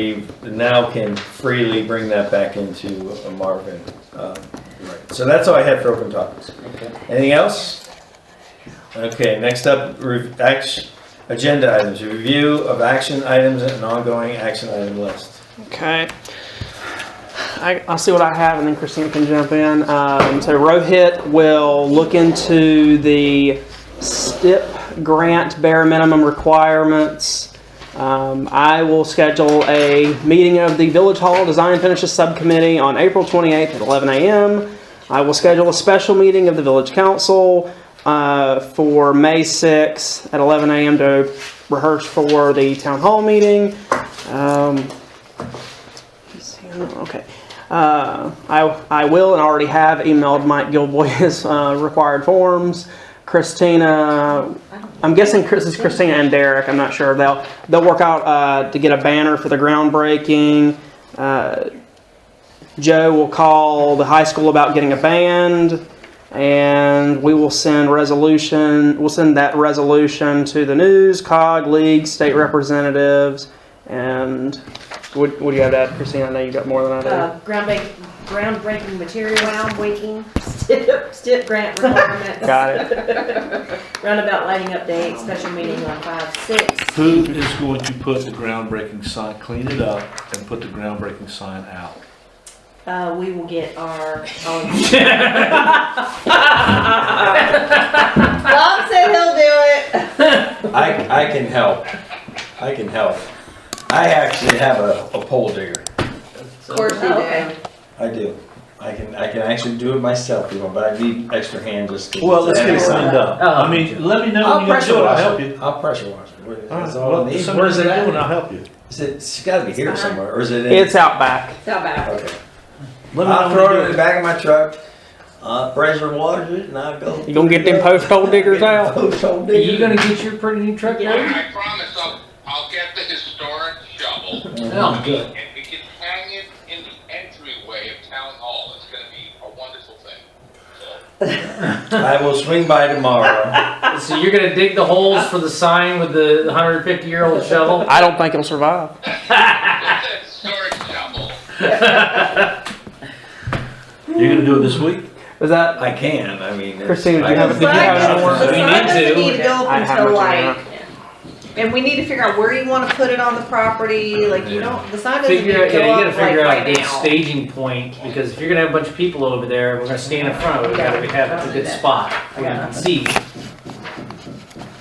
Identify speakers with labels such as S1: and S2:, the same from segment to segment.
S1: We now can freely bring that back into a Marvin. Um, So that's all I had for open topics.
S2: Okay.
S1: Anything else? Okay, next up, re- act- agenda items, review of action items and ongoing action item list.
S3: Okay. I, I'll see what I have, and then Christina can jump in. Um, so Rohit will look into the STIP grant bare minimum requirements. Um, I will schedule a meeting of the Village Hall Design and Finishes Subcommittee on April 28th at 11 a.m. I will schedule a special meeting of the Village Council uh, for May 6th at 11 a.m. to rehearse for the town hall meeting. Um, Oh, Okay. Uh, I, I will and already have emailed Mike Gilboy his uh, required forms. Christina, I'm guessing Chris is Christina and Derek. I'm not sure. They'll they'll work out uh, to get a banner for the groundbreaking. Uh, Joe will call the high school about getting a band, and we will send resolution. We'll send that resolution to the news, cog, league, state representatives, and what, what do you have to add, Christina? I know you got more than I do.
S4: Uh, groundbreaking, groundbreaking materials,
S2: Groundbreaking.
S4: stip, stip grant requirements.
S3: Got it.
S4: Roundabout lighting update, special meeting on five, six.
S5: Who is going to put the groundbreaking sign, clean it up and put the groundbreaking sign out?
S4: Uh, we will get our, own. Bob said he'll do it.
S6: I, I can help. I can help. I actually have a, a pole digger.
S4: Of course you do.
S6: I do. I can, I can actually do it myself, you know, but I need extra hands just. to-
S5: Well, let's get it cleaned up.
S2: Oh.
S5: I mean, let me know
S6: I'll
S5: when you're gonna
S6: pressure
S5: do it, I'll
S6: wash
S5: help
S6: it.
S5: you.
S6: I'll pressure wash it. What- That's all
S5: Alright,
S6: I
S5: well,
S6: need.
S5: somebody
S6: Where's it
S5: do it and
S6: at?
S5: I'll help you.
S6: Is it, it's gotta be here
S4: It's fine.
S6: somewhere, or is it in?
S3: It's out back.
S4: It's not bad.
S6: Okay.
S5: Let me know
S6: I'll
S5: when you do
S6: throw it in the back of my truck, uh, pressure wash it, and I'll go.
S3: You gonna get them post hole diggers out?
S6: Post hole
S2: Are you
S6: digger.
S2: gonna get your pretty new truck
S4: Yeah.
S2: now?
S7: I promise I'll, I'll get the historic shovel
S2: Oh, good.
S7: and we can hang it in the entryway of town hall. It's gonna be a wonderful thing.
S6: I will swing by tomorrow.
S2: So you're gonna dig the holes for the sign with the 150 year old shovel?
S3: I don't think it'll survive.
S7: Get the historic shovel.
S5: it. You're gonna do it this week?
S3: Is that
S6: I can, I mean. it's-
S3: Christina? Do you have,
S6: I
S3: did you have any
S6: can-
S3: more?
S4: The
S2: We
S4: sign
S2: need
S4: doesn't
S2: to.
S4: need to
S3: I
S4: go up
S3: have
S4: until
S3: much in
S4: like, and we need to figure out where you wanna put it on the property, like, you don't, the sign doesn't need to
S2: Figure
S4: go
S2: out, yeah, you gotta
S4: up like
S2: figure out a
S4: right
S2: good
S4: now.
S2: staging point because if you're gonna have a bunch of people over there, we're gonna stand in front of it. We gotta have a good spot where you can see.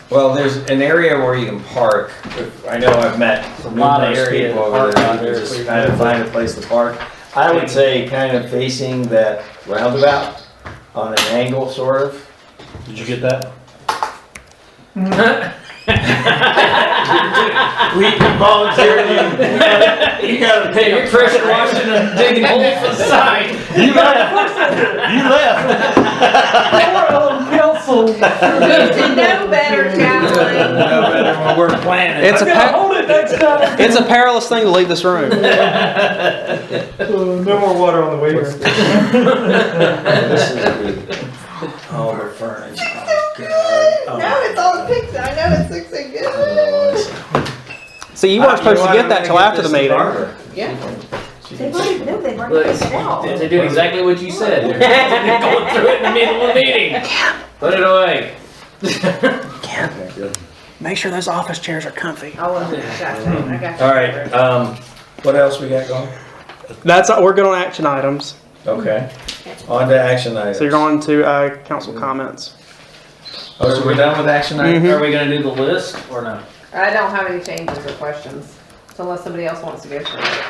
S6: Well, there's an area where you can park. I know I've met
S2: lot of
S6: numerous
S2: area to
S6: people over
S2: park out there
S6: there,
S2: for
S6: just
S2: you.
S6: trying to find a place to park. I would say kind of facing that roundabout on an angle, sort of.
S5: Did you get that?
S6: We can volunteer you. You gotta
S2: Hey, you're pressure washing and digging holes for the sign.
S5: You left. You left.
S4: You should know better, Chaplain.
S6: know better when we're planning.
S3: It's a pa- It's a perilous thing to leave this room.
S8: No more water on the waiver.
S6: This is the, all the furniture. Oh, God.
S4: No, it's all the pics. I know it looks so good.
S6: Oh,
S3: So Uh, you weren't supposed to get that till after the meeting.
S4: Yeah.
S6: She
S4: They've
S6: can-
S4: already, no, they've
S2: Look.
S4: already figured it out.
S2: They're doing exactly what you said. They're going through it in the middle of the meeting. Put it away.
S6: Okay, good.
S3: Make sure those office chairs are comfy.
S4: I will, gotcha, I gotcha.
S1: All right, um, what else we got going?
S3: That's uh, we're going on action items.
S1: Okay, on to action items.
S3: So you're going to uh, council comments.
S1: Oh, so we're done with action items?
S6: Mm-hmm.
S3: Mhm.
S2: Are we gonna do the list or no?
S4: I don't have any changes or questions, so unless somebody else wants to go through it.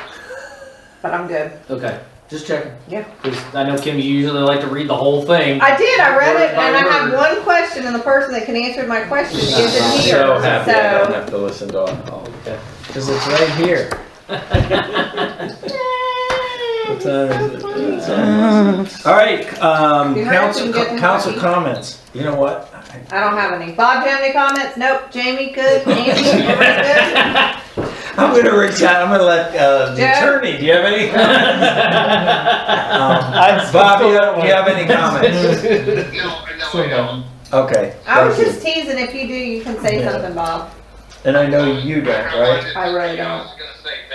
S4: But I'm good.
S2: Okay, just checking.
S4: Yeah.
S2: Because I know Kim, you usually like to read the whole thing.
S4: I did, I read it,
S2: Word by
S4: and I have
S2: word.
S4: one question, and the person that can answer my question
S3: Mm-hmm.
S2: I'm
S4: isn't here,
S1: So happy I don't
S4: so.
S1: have to listen to all- all,
S2: Okay.
S1: because it's right here. What time is it? It's
S3: Uh,
S1: almost- All right, um,
S4: You heard
S1: council,
S4: him getting
S1: council
S4: coffee?
S1: comments. You know what?
S4: I don't have any. Bob, do you have any comments? Nope. Jamie, good. Nancy, everybody's good?
S1: I'm gonna reach out, I'm gonna let, uh, the
S4: Jeff?
S1: attorney, do you have any? Um, Bob, you have, you have any comments?
S7: No, no, I don't.
S1: Okay,
S4: I was
S1: thank you.
S4: just teasing, if you do, you can say
S1: Yeah.
S4: something, Bob.
S1: And I know you don't,
S7: I
S1: right?
S7: wanted
S4: I
S7: to-
S4: really
S7: yeah, I
S4: don't.
S7: was gonna say,